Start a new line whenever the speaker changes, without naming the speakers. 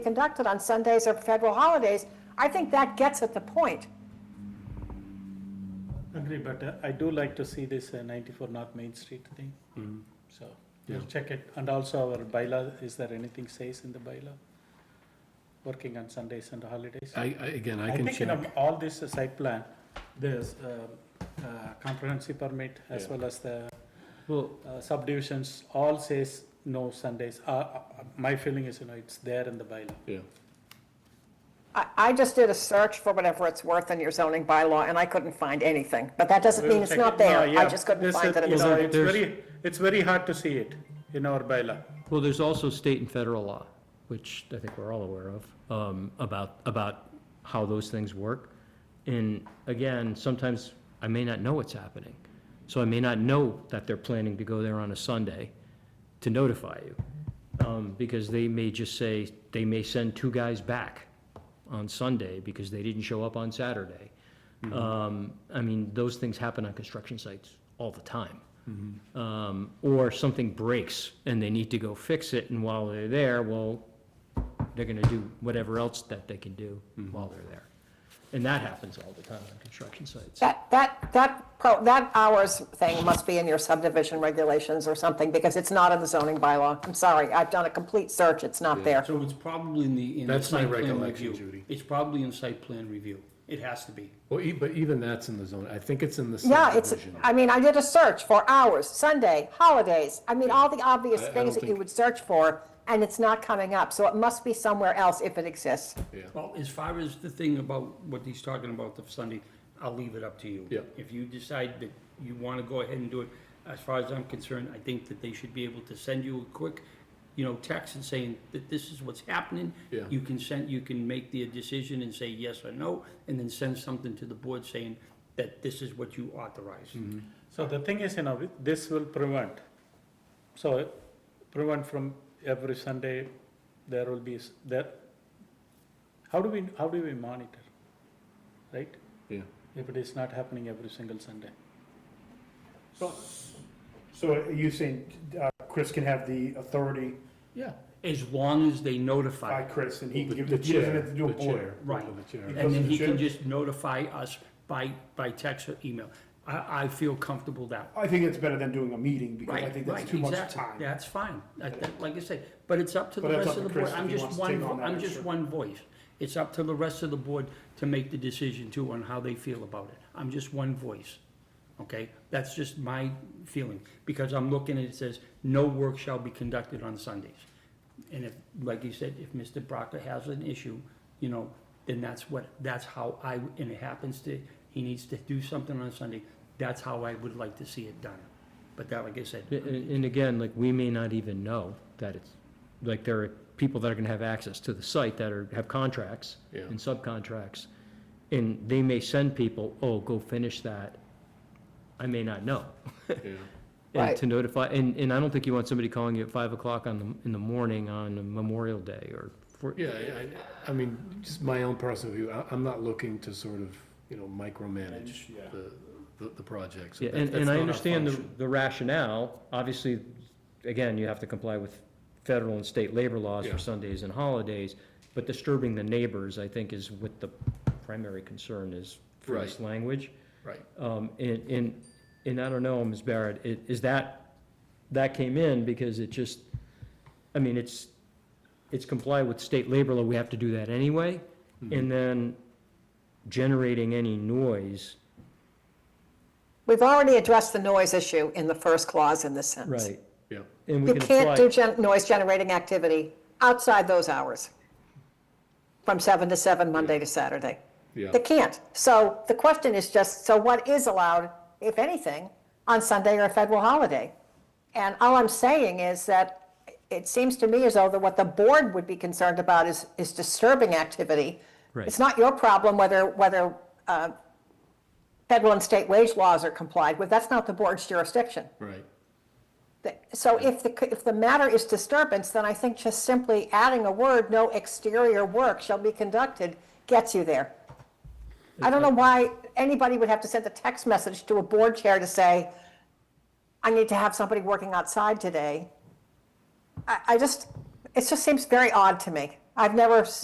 conducted on Sundays or federal holidays, I think that gets at the point.
Agree, but uh, I do like to see this uh, ninety-four North Main Street thing,
Mm-hmm.
so we'll check it. And also our bylaw, is there anything says in the bylaw? Working on Sundays and holidays?
I, I, again, I
I
can
think in
check.
um, all this uh, site plan, there's uh, uh, comprehensive permit as
Yeah.
well as the
Well,
uh, subdivisions, all says no Sundays. Uh, uh, My feeling is, you know, it's there in the bylaw.
yeah,
I, I just did a search for whatever it's worth in your zoning bylaw, and I couldn't find anything. But that doesn't
We
mean
will
it's not
check it. No,
there. I
yeah.
just couldn't
This
find
is-
that it
you
was
know,
on.
It's
There's-
very, it's very hard to see it in our bylaw.
Well, there's also state and federal law, which I think we're all aware of, um, about, about how those things work. And again, sometimes I may not know what's happening. So I may not know that they're planning to go there on a Sunday to notify you. Um, because they may just say, they may send two guys back on Sunday because they didn't show up on Saturday. Um, I mean, those things happen on construction sites all the time um, or something breaks and they need to go fix it, and while they're there, well, they're gonna do whatever else that they can do while they're there. And that happens all the time on construction sites.
That, that, that, pro- that hours thing must be in your subdivision regulations or something, because it's not in the zoning bylaw. I'm sorry, I've done a complete search, it's not there.
So it's probably in the, in the
That's my
site plan
recollection,
review.
Judy.
It's probably in site plan review. It has to be.
well, e- but even that's in the zone, I think it's in the
Yeah, it's,
subdivision.
I mean, I did a search for hours, Sunday, holidays, I mean, all the obvious
I- I
things
don't
that you
think-
would search for, and it's not coming up, so it must be somewhere else if it exists.
Well, as far as the thing about what he's talking about the Sunday, I'll leave it up to you.
Yeah.
If you decide that you wanna go ahead and do it, as far as I'm concerned, I think that they should be able to send you a quick, you know, text and saying that this is what's happening.
Yeah.
You can send, you can make the decision and say yes or no, and then send something to the board saying that this is what you authorize.
So the thing is, you know, this will prevent, so prevent from every Sunday, there will be, s- there, how do we, how do we monitor? Right?
Yeah.
If it is not happening every single Sunday.
So are you saying uh, Chris can have the authority
Yeah.
As long as they
by
notify.
Chris and he can
The-
give
the
the, he doesn't
chair,
have to do a
the chair.
boiler?
Right.
The chair.
And then he can
Chair?
just notify us by, by text or email. I, I feel comfortable that.
I think it's better than doing a meeting because
Right,
I think that's
right,
too much
exactly.
time.
That's fine. That- that- Like I said, but it's up to the
But that's
rest
up
of the
to
board.
Chris
I'm
if he
just
wants to
one,
take on
vo-
that
I'm just
extra.
one voice. It's up to the rest of the board to make the decision too on how they feel about it. I'm just one voice. Okay? That's just my feeling, because I'm looking and it says, no work shall be conducted on Sundays. And if, like you said, if Mr. Brocker has an issue, you know, then that's what, that's how I, and it happens to, he needs to do something on Sunday, that's how I would like to see it done. But that, like I said,
A- a- And, again, like, we may not even know that it's, like, there are people that are gonna have access to the site that are, have contracts
Yeah.
and subcontracts. And they may send people, oh, go finish that. I may not know.
Yeah.
and
Right.
to notify, and, and I don't think you want somebody calling you at five o'clock on the, in the morning on Memorial Day or, for-
Yeah, I, I- I mean, just my own personal view, I, I'm not looking to sort of, you know, micromanage
Yeah.
the, the, the project. so
Yeah,
that-
and,
that's
and I
not our
understand the,
function.
the rationale, obviously, again, you have to comply with federal and state labor laws
Yeah.
for Sundays and holidays, but disturbing the neighbors, I think, is what the primary concern is for this language.
Right,
Um, and, and, and I don't know, Ms. Barrett, i- is that, that came in because it just, I mean, it's, it's comply with state labor law, we have to do that anyway.
Hmm.
And then generating any noise,
We've already addressed the noise issue in the first clause in this sentence.
right?
yeah,
And we
You
can
can't do
apply,
gen- noise-generating activity outside those hours, from seven to seven, Monday to Saturday.
yeah.
They can't. So the question is just, so what is allowed, if anything, on Sunday or a federal holiday? And all I'm saying is that it seems to me as though that what the board would be concerned about is, is disturbing activity.
Right.
It's not your problem whether, whether uh, federal and state wage laws are complied with. That's not the board's jurisdiction.
Right,
The- So if the, if the matter is disturbance, then I think just simply adding a word, no exterior work shall be conducted, gets you there. I don't know why anybody would have to send a text message to a board chair to say, I need to have somebody working outside today. I, I just, it just seems very odd to me. I- I've never s-